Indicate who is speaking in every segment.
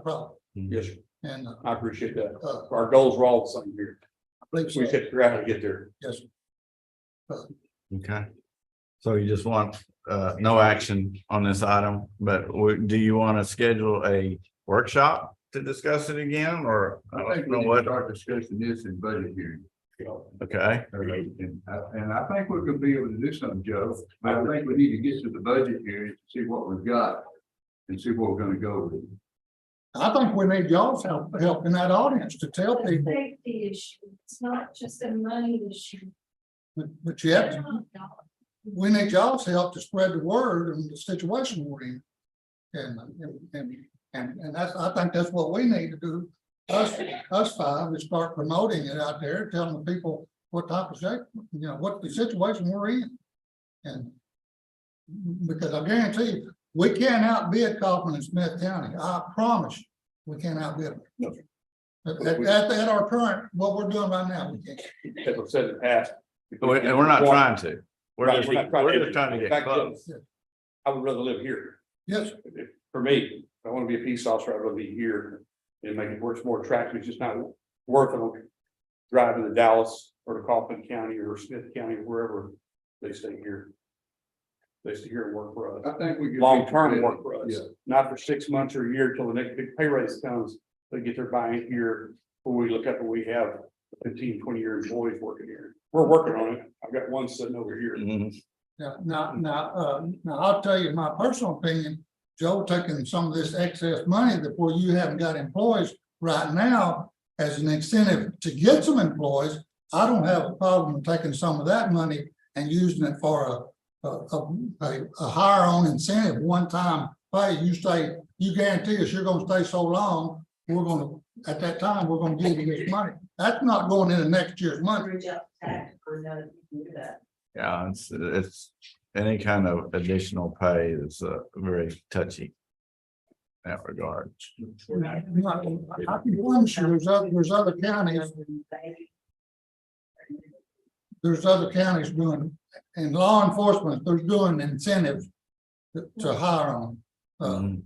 Speaker 1: problem.
Speaker 2: Yes, sir.
Speaker 1: And uh,
Speaker 2: I appreciate that.
Speaker 1: uh,
Speaker 2: Our goals are all the same here.
Speaker 1: I believe
Speaker 2: We
Speaker 1: so.
Speaker 2: just have to figure out how to get there.
Speaker 3: Okay. So you just want uh no action on this item, but w- do you want to schedule a workshop to discuss it again or? I
Speaker 4: I think
Speaker 3: don't
Speaker 4: we
Speaker 3: know
Speaker 4: need to
Speaker 3: what,
Speaker 4: start discussing this in budget hearing.
Speaker 2: you know.
Speaker 3: okay,
Speaker 4: And I, and I think we're gonna be able to do something, Joe, but I think we need to get to the budget hearing, to see what we've got. And see what we're gonna go with.
Speaker 1: I think we need y'all's help, help in that audience to tell
Speaker 5: It's a
Speaker 1: people
Speaker 5: Safety issue, it's not just a money issue.
Speaker 1: that- that you have, to- we need y'all's help to spread the word and the situation we're in. And, and, and, and and that's, I think that's what we need to do. Us, us five is start promoting it out there, telling the people what type of shape, you know, what the situation we're in. And because I guarantee you, we can't outbid Kaufman and Smith County. I promise you, we can't outbid them.
Speaker 2: No.
Speaker 1: At, at- at, at our current, what we're doing right now, we can't.
Speaker 2: As I've said in the past. if
Speaker 3: We-
Speaker 2: we-
Speaker 3: Oh, and we're not trying to. We're
Speaker 2: Right,
Speaker 3: just,
Speaker 2: we're not trying to-
Speaker 3: we're just trying to
Speaker 2: Back
Speaker 3: get
Speaker 2: to-
Speaker 3: close.
Speaker 2: I would rather live here.
Speaker 1: Yes,
Speaker 2: For me, if I want to be a peace officer, I'd rather be here and make it work more attractive. It's just not worth it. Driving to Dallas or to Kaufman County or Smith County or wherever they stay here. They stay here and work for us.
Speaker 4: I think we. could be
Speaker 2: long-term
Speaker 4: competitive.
Speaker 2: work for us,
Speaker 4: Yeah.
Speaker 2: not for six months or a year till the next big pay raise comes. They get their buy-in here, when we look up and we have 15, 20 year employees working here. We're working on it. I've got one sitting over here.
Speaker 3: Mhm.
Speaker 1: now, now, now, uh, now I'll tell you my personal opinion. Joe taking some of this excess money that, well, you haven't got employees right now as an incentive to get some employees. I don't have a problem taking some of that money and using it for a, a, a- a, a higher on incentive, one-time pay. You say, you guarantee us you're gonna stay so long, we're gonna, at that time, we're gonna give you this money. That's not going into next year's money.
Speaker 5: Average out tax, I know that you can do that.
Speaker 3: Yeah, it's, it's any kind of additional pay is uh very touchy. in That regard.
Speaker 1: I can promise you, there's other, there's other counties, there's other counties doing, and law enforcement, they're doing incentives to- to hire on. Uh,
Speaker 4: Um,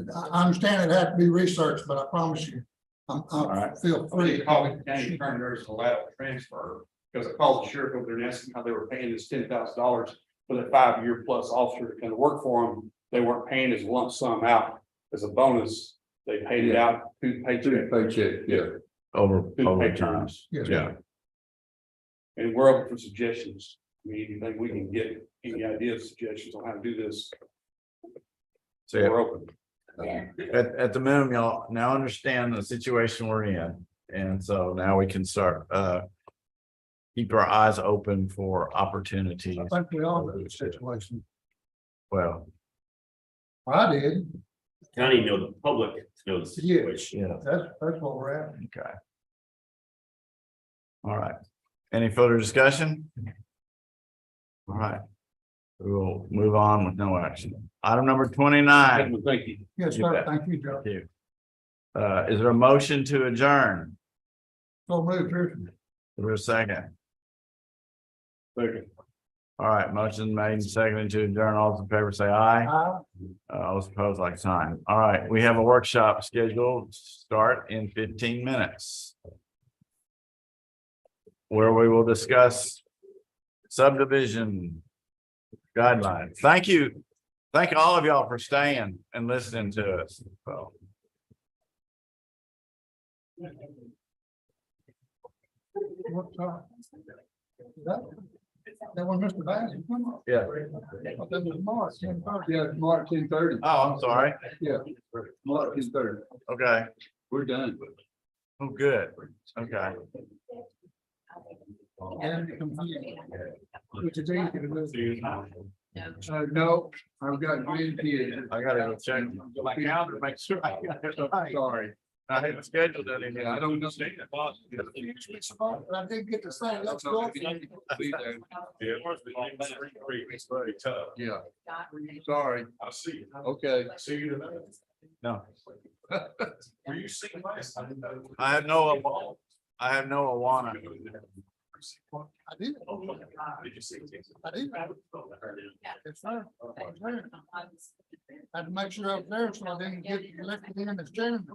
Speaker 3: Mhm.
Speaker 1: I, I understand it had to be researched, but I promise you, I'm, I
Speaker 3: right.
Speaker 1: feel free.
Speaker 2: there's a lateral transfer, because I called the sheriff over there and asked him how they were paying this ten thousand dollars for the five-year plus officer to kind of work for them. They weren't paying his lump sum out as a bonus. They paid it out two
Speaker 4: Two
Speaker 2: paychecks,
Speaker 4: paycheck, yeah.
Speaker 3: Over,
Speaker 2: two
Speaker 3: over
Speaker 2: pay
Speaker 3: time.
Speaker 2: times.
Speaker 1: Yes.
Speaker 3: Yeah,
Speaker 2: And we're open for suggestions. I mean, anything we can get, any ideas, suggestions on how to do this,
Speaker 3: so yeah,
Speaker 2: we're open.
Speaker 3: At, at the minimum, y'all now understand the situation we're in, and so now we can start, uh. Keep our eyes open for opportunities,
Speaker 1: I think we all know the situation.
Speaker 3: well,
Speaker 1: I did,
Speaker 6: county know the public to know the situation.
Speaker 3: yeah,
Speaker 1: that's, that's what we're at.
Speaker 3: okay. All right, any further discussion? All right. We will move on with no action. Item number twenty-nine,
Speaker 2: Gentlemen, Thank you.
Speaker 1: Yes,
Speaker 3: You
Speaker 1: sir,
Speaker 3: bet.
Speaker 1: thank you, Joe.
Speaker 3: uh, is there a motion to adjourn?
Speaker 1: So move, Pearson.
Speaker 3: Is there a second?
Speaker 2: Second.
Speaker 3: All right, motion made and seconded to adjourn, all those in favor say aye.
Speaker 1: Aye.
Speaker 3: Uh, I was opposed like sign. All right, we have a workshop scheduled, start in fifteen minutes. Where we will discuss subdivision guidelines. Thank you. Thank all of y'all for staying and listening to us. Oh, Well,
Speaker 1: What time? Is That that one, Mr. Bass?
Speaker 3: Yeah.
Speaker 1: That was March, ten thirty.
Speaker 4: Yeah, March ten thirty,
Speaker 3: Oh, I'm sorry.
Speaker 4: yeah. March ten thirty,
Speaker 3: Okay.
Speaker 4: we're done.
Speaker 3: Oh, good. Okay.
Speaker 1: And it comes in. Which is easy to do.
Speaker 4: Uh, no, I've got grandkids.
Speaker 3: I gotta go check my calendar, make sure I got it right.
Speaker 4: Sorry,
Speaker 3: I hadn't scheduled anything.
Speaker 4: I don't know.
Speaker 1: But I did get to say, let's go.
Speaker 4: Yeah, sorry,
Speaker 2: I'll see you.
Speaker 4: okay.
Speaker 2: See you tonight.
Speaker 3: No.
Speaker 2: Were you seen last? I didn't know.
Speaker 3: I have no, I have no Awana.
Speaker 1: I did,
Speaker 2: Did you see?
Speaker 1: I did.
Speaker 2: I
Speaker 1: Yes, sir. I had to make sure I was there so I didn't get elected in as chairman.